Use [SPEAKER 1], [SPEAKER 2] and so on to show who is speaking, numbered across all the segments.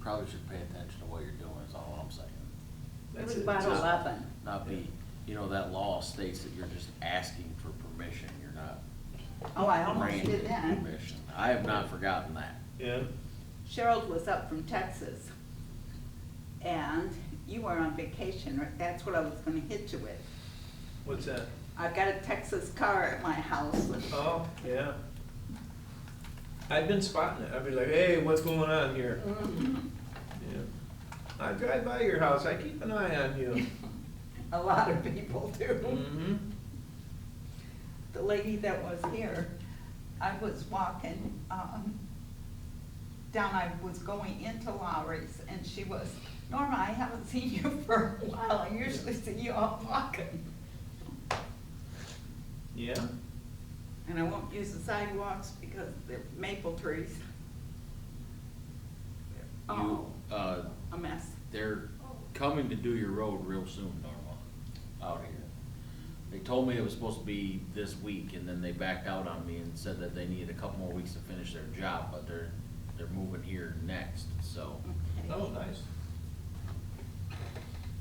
[SPEAKER 1] probably should pay attention to what you're doing, is all I'm saying.
[SPEAKER 2] It
[SPEAKER 3] That's
[SPEAKER 2] was
[SPEAKER 3] it.
[SPEAKER 2] about
[SPEAKER 3] Just-
[SPEAKER 2] eleven.
[SPEAKER 1] Not be, you know, that law states that you're just asking for permission, you're not
[SPEAKER 2] Oh, I almost
[SPEAKER 1] granting
[SPEAKER 2] did then.
[SPEAKER 1] permission. I have not forgotten that.
[SPEAKER 3] Yeah,
[SPEAKER 2] Cheryl was up from Texas. And you were on vacation, right? That's what I was gonna hit you with.
[SPEAKER 3] what's that?
[SPEAKER 2] I've got a Texas car at my house.
[SPEAKER 3] Oh, yeah. I've been spotting it. I've been like, hey, what's going on here? Yeah. I drive by your house. I keep an eye on you.
[SPEAKER 2] A lot of people do.
[SPEAKER 3] Mm-hmm.
[SPEAKER 2] The lady that was here, I was walking, um, down, I was going into Lowry's and she was, Norma, I haven't seen you for a while. I usually see you out walking.
[SPEAKER 3] Yeah.
[SPEAKER 2] And I won't use the sidewalks because they're maple trees. Oh,
[SPEAKER 1] You, uh,
[SPEAKER 2] a mess.
[SPEAKER 1] they're coming to do your road real soon, Norma, out here. They told me it was supposed to be this week, and then they backed out on me and said that they needed a couple more weeks to finish their job, but they're, they're moving here next, so,
[SPEAKER 3] Oh, nice.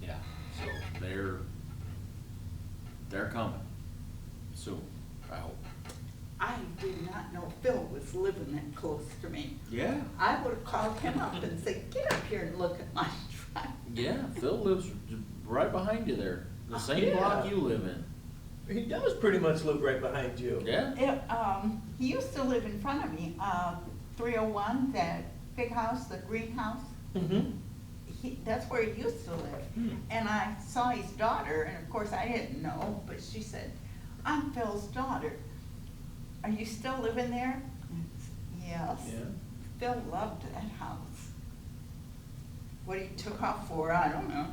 [SPEAKER 1] yeah. So they're, they're coming soon, I hope.
[SPEAKER 2] I did not know Phil was living that close to me.
[SPEAKER 1] Yeah.
[SPEAKER 2] I would've called him up and said, get up here and look at my truck.
[SPEAKER 1] Yeah, Phil lives right behind you there, the same block you live in.
[SPEAKER 3] He does pretty much live right behind you.
[SPEAKER 1] Yeah?
[SPEAKER 2] It, um, he used to live in front of me, uh, three oh one, that big house, the greenhouse.
[SPEAKER 3] Mm-hmm.
[SPEAKER 2] He, that's where he used to live.
[SPEAKER 3] Hmm.
[SPEAKER 2] And I saw his daughter, and of course I didn't know, but she said, I'm Phil's daughter. Are you still living there? And I said, Yes.
[SPEAKER 3] Yeah.
[SPEAKER 2] Phil loved that house. What he took off for, I don't know.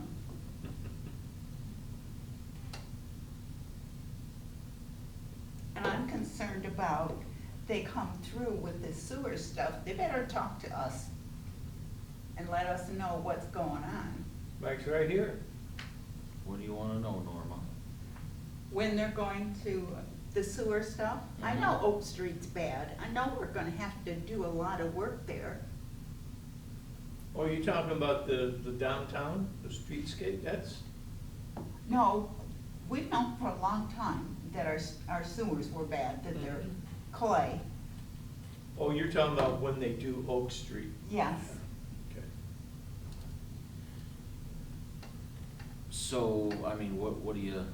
[SPEAKER 2] And I'm concerned about they come through with this sewer stuff. They better talk to us and let us know what's going on.
[SPEAKER 3] Mike's right here.
[SPEAKER 1] What do you wanna know, Norma?
[SPEAKER 2] when they're going to the sewer stuff. I know
[SPEAKER 1] Mhm.
[SPEAKER 2] Oak Street's bad, I know we're gonna have to do a lot of work there.
[SPEAKER 3] Oh, you talking about the, the downtown, the streetscape? That's,
[SPEAKER 2] No, we've known for a long time that our, s- our sewers were bad, that they're
[SPEAKER 4] Mm-hmm.
[SPEAKER 3] Mhm.
[SPEAKER 2] clay,
[SPEAKER 3] oh, you're talking about when they do Oak Street.
[SPEAKER 2] yes.
[SPEAKER 3] Okay.
[SPEAKER 1] So, I mean, what, what do you,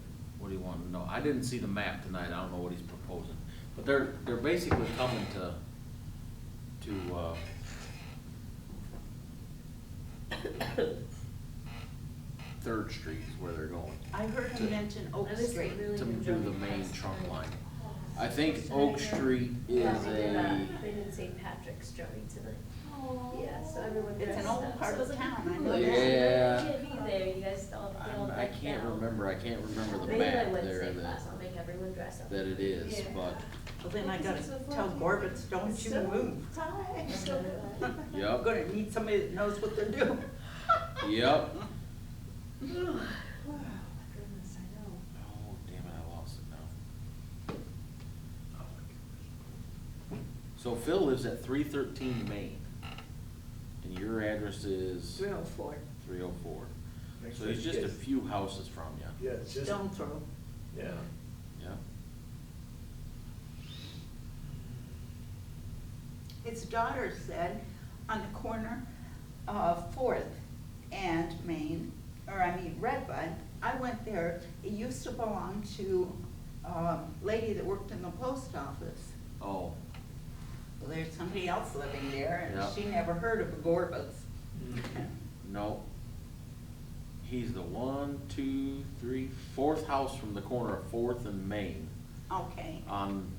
[SPEAKER 1] what do you want to know? I didn't see the map tonight, I don't know what he's proposing, but they're, they're basically coming to, to, uh, Third Street is where they're going,
[SPEAKER 2] I heard
[SPEAKER 1] To-
[SPEAKER 2] him mention Oak
[SPEAKER 4] That is
[SPEAKER 2] Street.
[SPEAKER 4] really
[SPEAKER 1] to
[SPEAKER 4] good
[SPEAKER 1] do the
[SPEAKER 4] job.
[SPEAKER 1] main trunk line. I
[SPEAKER 4] Yeah,
[SPEAKER 1] think Oak Street
[SPEAKER 4] They
[SPEAKER 1] is
[SPEAKER 4] did
[SPEAKER 1] a,
[SPEAKER 4] a, they did St. Patrick's drawing tonight. Yeah, so everyone
[SPEAKER 2] It's
[SPEAKER 4] dressed up.
[SPEAKER 2] an old part
[SPEAKER 4] So
[SPEAKER 2] of
[SPEAKER 4] it's
[SPEAKER 2] town, I
[SPEAKER 4] cool.
[SPEAKER 2] know
[SPEAKER 1] that.
[SPEAKER 4] You can't be there, you guys all, they all
[SPEAKER 1] Oh, I
[SPEAKER 4] decked
[SPEAKER 1] can't
[SPEAKER 4] out.
[SPEAKER 1] remember, I can't remember the
[SPEAKER 4] Maybe my
[SPEAKER 1] map there
[SPEAKER 4] Wednesday
[SPEAKER 1] that,
[SPEAKER 4] class, I'll make everyone dress up.
[SPEAKER 1] that it is,
[SPEAKER 4] Yeah.
[SPEAKER 1] but,
[SPEAKER 2] Well, then I gotta
[SPEAKER 4] Is this
[SPEAKER 2] tell
[SPEAKER 4] before?
[SPEAKER 2] Gorbitz, don't you
[SPEAKER 4] So-
[SPEAKER 2] move.
[SPEAKER 4] So good.
[SPEAKER 2] I'm
[SPEAKER 1] yep,
[SPEAKER 2] gonna need somebody that knows what they're doing.
[SPEAKER 1] yep.
[SPEAKER 4] Oh, my goodness, I know.
[SPEAKER 1] Oh, damn it, I lost it now.
[SPEAKER 3] Oh,
[SPEAKER 1] So Phil lives at three thirteen Main, and your address is
[SPEAKER 2] Three oh four,
[SPEAKER 1] three oh four.
[SPEAKER 3] Next
[SPEAKER 1] So he's
[SPEAKER 3] thing
[SPEAKER 1] just a
[SPEAKER 3] is-
[SPEAKER 1] few houses from you,
[SPEAKER 3] Yeah, it's just,
[SPEAKER 2] stone throw.
[SPEAKER 3] yeah.
[SPEAKER 1] yeah?
[SPEAKER 2] His daughter said on the corner of Fourth and Main, or I mean Redbud, I went there, it used to belong to a lady that worked in the post office.
[SPEAKER 1] Oh,
[SPEAKER 2] Well, there's somebody else living there
[SPEAKER 1] Yeah.
[SPEAKER 2] and she never heard of a Gorbas.
[SPEAKER 3] Mhm.
[SPEAKER 1] no. He's the one, two, three, fourth house from the corner of Fourth and Main
[SPEAKER 2] Okay,
[SPEAKER 1] on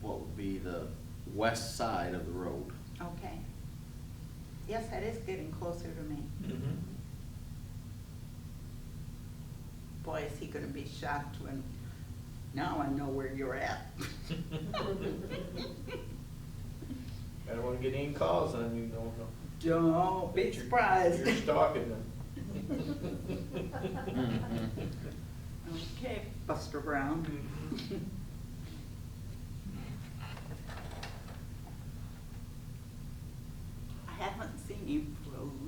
[SPEAKER 1] what would be the west side of the road.
[SPEAKER 2] okay. Yes, that is getting closer to me.
[SPEAKER 3] Mhm.
[SPEAKER 2] Boy, is he gonna be shocked when, now I know where you're at.
[SPEAKER 3] I don't wanna get any calls on you, no, no.
[SPEAKER 2] Don't be surprised.
[SPEAKER 3] You're stalking them.
[SPEAKER 1] Mhm.
[SPEAKER 2] Okay, Buster Brown.